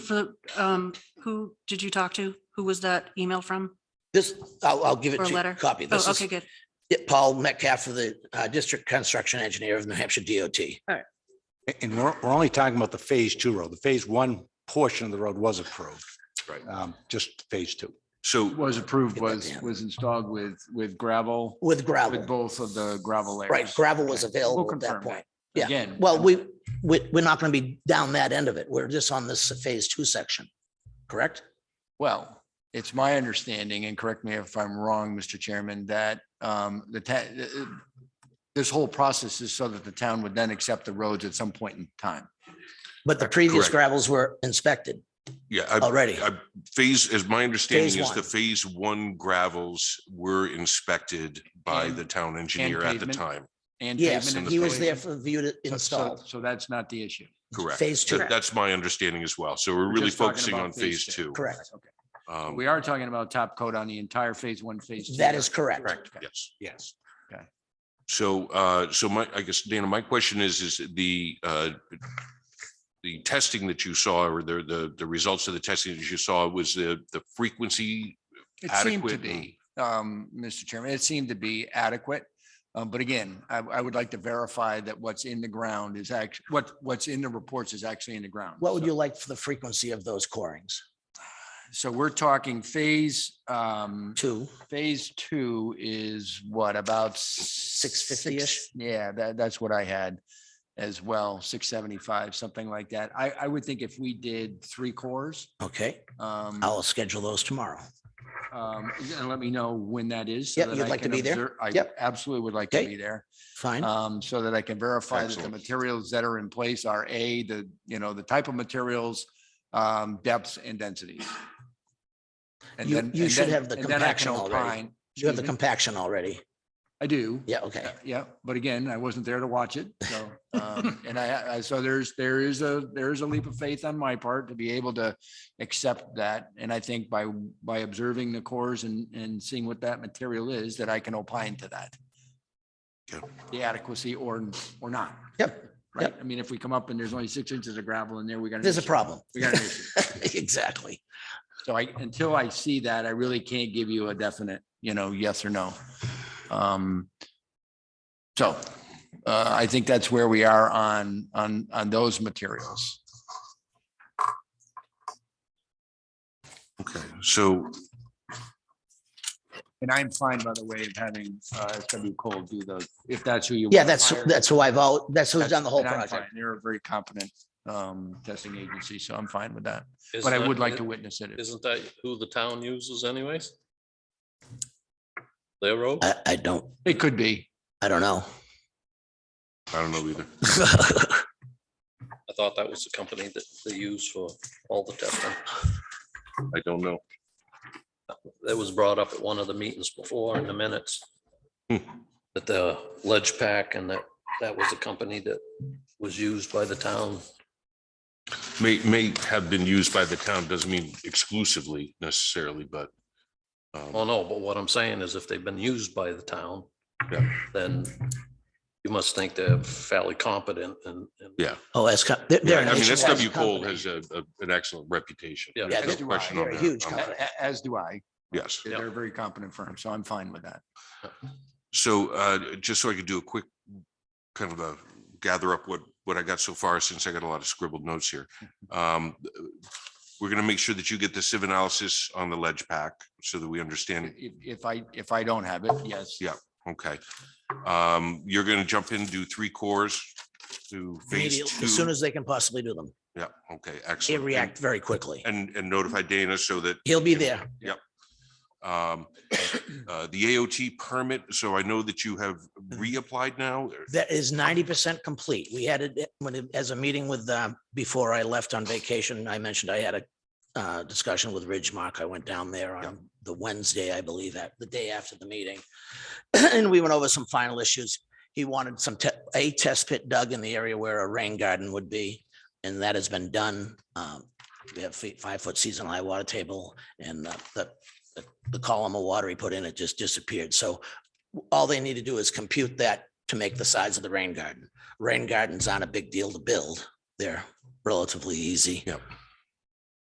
for, um, who did you talk to? Who was that email from This, I'll, I'll give it or to you, letter? copy. This Oh, okay, is good. Paul Metcalf for the uh, District Construction Engineer of New Hampshire DOT. Uh, A- And we're, we're only talking about the phase two road. The phase one portion of the road was approved. Right. Um, Just phase two. So, Uh, was approved Get that was, down. was installed with, with gravel, With with gravel, both of the gravel layers. right? Gravel was Okay, we'll available at that confirm point. yeah. Again. Well, we, we, we're not going to be down that end of it. We're just on this phase two section, correct? Well, it's my understanding, and correct me if I'm wrong, Mr. Chairman, that um, the ta- uh, this whole process is so that the town would then accept the roads at some point in time. But the previous Correct. gravels were inspected yeah, I- already. I- phase, as my Phase understanding is the one. phase one gravels were inspected by And- the town engineer at the pavement. time. and Yes, pavement he was there installation. for the view to So- so- install. So that's not the issue. Correct. Phase That- two, That's my understanding as well. So we're We're really just talking focusing about on phase two. correct. Okay. Um, We are talking about top coat on the entire phase one, phase two. That is correct. Correct, yes. Yes. So, uh, so my, I guess, Dana, my question is, is the, uh, the testing that you saw or the, the, the results of the testing that you saw was the, the frequency? It seemed to adequate be, um, Mr. Chairman, it seemed to be adequate. Um, but again, I, I would like to verify that what's in the ground is actually what, what's in the reports is actually in the ground. What would So- you like for the frequency of those corings? So we're talking phase, um, Two, phase two is what about? Six 650-ish? Yeah, that, that's what I had as well, six seventy-five, something like that. I, I would think if we did three cores, okay? um. I'll schedule those tomorrow. um, and let me know when that is. so Yep, that you'd I like to can be there? observe- I Yep. absolutely would like to Okay. be there, Fine. um, so that I can verify that the Excellent. materials that are in place are A, the, you know, the type of materials, um, depths and densities. And You- then- you and should then- have the and then I can compaction already. opine- You have the excuse me? compaction already. I do. Yeah, okay. Yeah, but again, I wasn't there to watch it, so, um, and I, I, so there's, there is a, there is a leap of faith on my part to be able to accept that, and I think by, by observing the cores and, and seeing what that material is, that I can opine to that. Yeah. The adequacy or, or not. Yep, Right, I mean, if we come up and there's only six inches of gravel in there, we got. an There's a issue. problem. We got an issue. Exactly. So I, until I see that, I really can't give you a definite, you know, yes or no. Um, so, uh, I think that's where we are on, on, on those materials. Okay, so And I'm fine, by the way, of having, uh, SW Cole do the, if that's who you. Yeah, wanna that's, hire, that's who I've all, that's who's that's- done the whole and I'm project. fine. They're a very competent, um, testing agency, so I'm fine with that, Is but I that- would like i- to witness it. Isn't that who the town uses anyways? Their road? I, I don't, It could be. I don't know. I don't know either. I thought that was the company that they use for all the testing. I don't know. That was brought up at one of the meetings before in the minutes. Hmm. That the ledge pack and that, that was a company that was used by the town. May, may have been used by the town, doesn't mean exclusively necessarily, but. um, Oh, no, but what I'm saying is if they've been used by the town, Yeah. then you must think they're fairly competent and. and- Yeah. Oh, as, co- they're, they're. I an mean, nationwide SW Cole company. has a, a- an excellent reputation. Yeah. There's Yeah, no they're- question on they're a that. huge Um, A- a- As do I. Yes. They're a very competent firm, so I'm fine with that. So uh, just so I could do a quick kind of a gather up what, what I got so far, since I got a lot of scribbled notes here. Um, We're going to make sure that you get the sieve analysis on the ledge pack so that we understand. If, if I, if I don't have it, yes. Yeah. Okay. Um, You're going to jump in, do three cores to phase Immediately, two. As soon as they can possibly do them. Yeah, okay, They excellent. react very quickly. And, and- and notify Dana so that He'll be there. um, uh, the AOT permit, so I know that you have reapplied now. That is ninety percent complete. We had it when, it- as a meeting with, uh, before I left on vacation, I mentioned I had a uh, discussion with Ridgemark. I went down there on the Wednesday, I believe, at the day after the meeting. And we went over some final issues. He wanted some, te- a test pit dug in the area where a rain garden would be, and that has been done. Um, We have feet, five-foot seasonal high water table, and the- the, the- the column of water he put in, it just disappeared. So all they need to do is compute that to make the size of the rain garden. Rain gardens aren't a big deal to build. They're relatively easy. Yep.